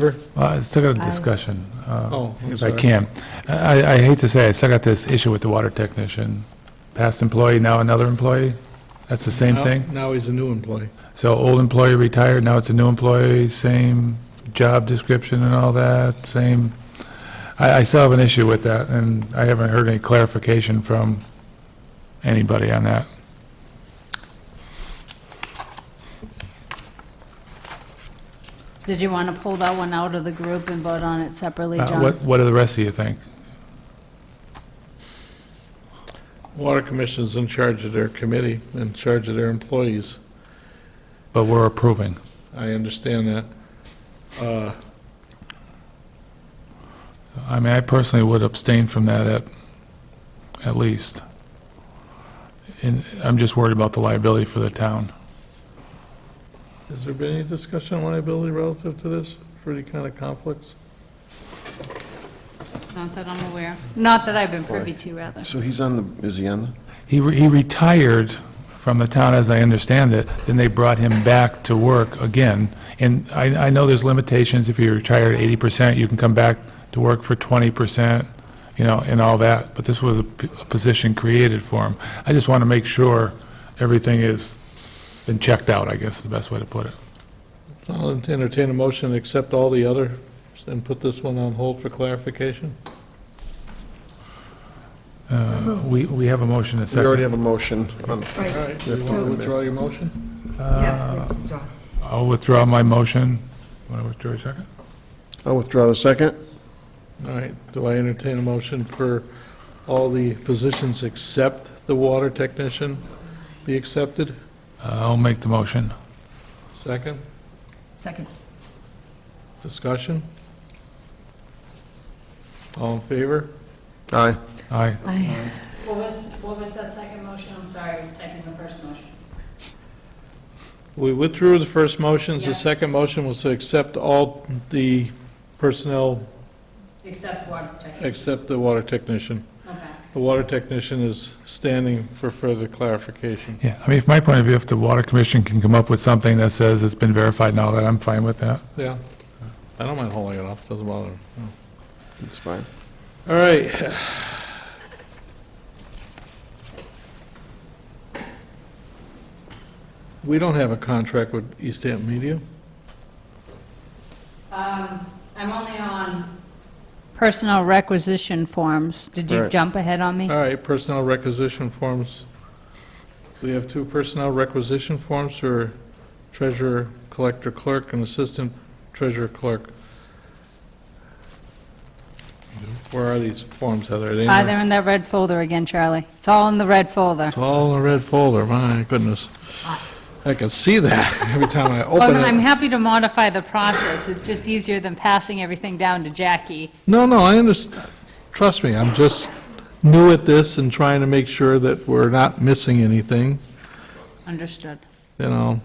favor? Well, Uh, I still got a Aye. discussion, uh, Oh, I'm if I sorry. can. I I hate to say, I still got this issue with the water technician. Past employee, now another employee? That's the same Now- thing? Now he's a new employee. So old employee retired, now it's a new employee, same job description and all that, same, I I still have an issue with that, and I haven't heard any clarification from anybody on that. Did you want to pull that one out of the group and vote on it separately, Uh, John? What What do the rest of you think? Water Commission's in charge of their committee, in charge of their employees. But we're approving. I understand that. Uh, I mean, I personally would abstain from that at, at least. And I'm just worried about the liability for the town. Has there been any discussion on liability relative to this, for any kind of conflicts? Not that I'm aware. Not that I've been privy to, rather. So he's on the, is he on He, re- he retired from the town, as I understand it, then they brought him back to work again. And I, I know there's limitations, if you retire at 80%, you can come back to work for 20%, you know, and all that, but this was a p- a position created for him. I just want to make sure everything is, been checked out, I guess is the best way to put it. I'll entertain a motion, to accept all the other, and put this one on hold for clarification. Uh, We, we have a motion in a the? We second. already have a motion. on- All Right, right, you want to withdraw your motion? yeah, withdraw. I'll withdraw my motion. Want to withdraw your second? I'll withdraw the second. All right, do I entertain a motion for all the positions except the water technician be accepted? Uh, I'll make the motion. Second, second. discussion? All in favor? Aye. Aye. What was, what was that second motion? I'm sorry, I was typing the first motion. We withdrew the first motions. The Yeah. second motion was to accept all the personnel Except water protection. except the water technician. Okay. The water technician is standing for further clarification. Yeah, I mean, from my point of view, if the Water Commission can come up with something that says it's been verified and all that, I'm fine with that. Yeah. I don't mind holding it off, doesn't bother me. That's fine. All right. We don't have a contract with East Hampton Media. Um, I'm only on personnel requisition forms. Did you Right. jump ahead on me? All right, personnel requisition forms. We have two personnel requisition forms for treasurer, collector clerk, and assistant treasurer clerk. Where are these forms, Heather? Are they in Ah, there? they're in that red folder again, Charlie. It's all in the red folder. It's all in a red folder, my goodness. I can see that every time I Well, open Oh, no, I'm it. happy to modify the process. It's just easier than passing everything down to Jackie. No, no, I understand. Trust me, I'm just new at this and trying to make sure that we're not missing anything. Understood. you know.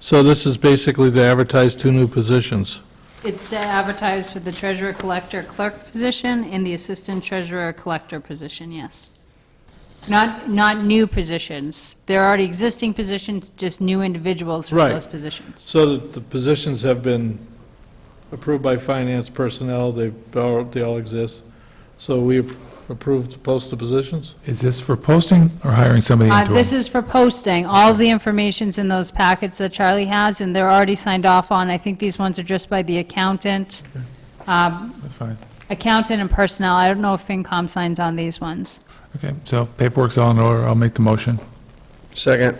So this is basically to advertise two new positions. It's to advertise for the treasurer collector clerk position and the assistant treasurer collector position, yes. Not, not new positions. There are already existing positions, just new individuals for Right. those positions. So that the positions have been approved by finance personnel, they, all- they all exist. So we approved to post the positions? Is this for posting or hiring somebody Uh, into This it? is for posting. All the information's in those packets that Charlie has, and they're already signed off on. I think these ones are just by the accountant, Um, That's fine. accountant and personnel. I don't know if FinCom signs on these ones. Okay, so paperwork's all in order. I'll make the motion. Second.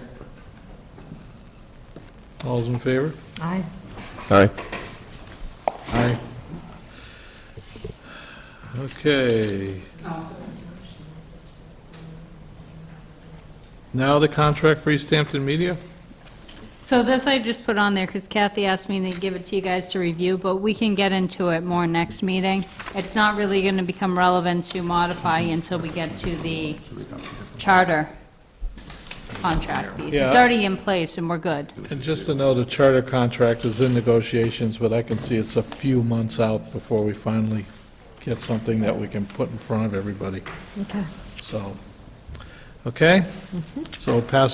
All's in favor? Aye. Aye. Aye. Okay. Now the contract for East Hampton Media? So this I just put on there because Kathy asked me to give it to you guys to review, but we can get into it more next meeting. It's not really going to become relevant to modify until we get to the charter contract piece. It's Yeah. already in place and we're good. And just to know, the charter contract is in negotiations, but I can see it's a few months out before we finally get something that we can put in front of everybody, Okay. so. Okay? So pass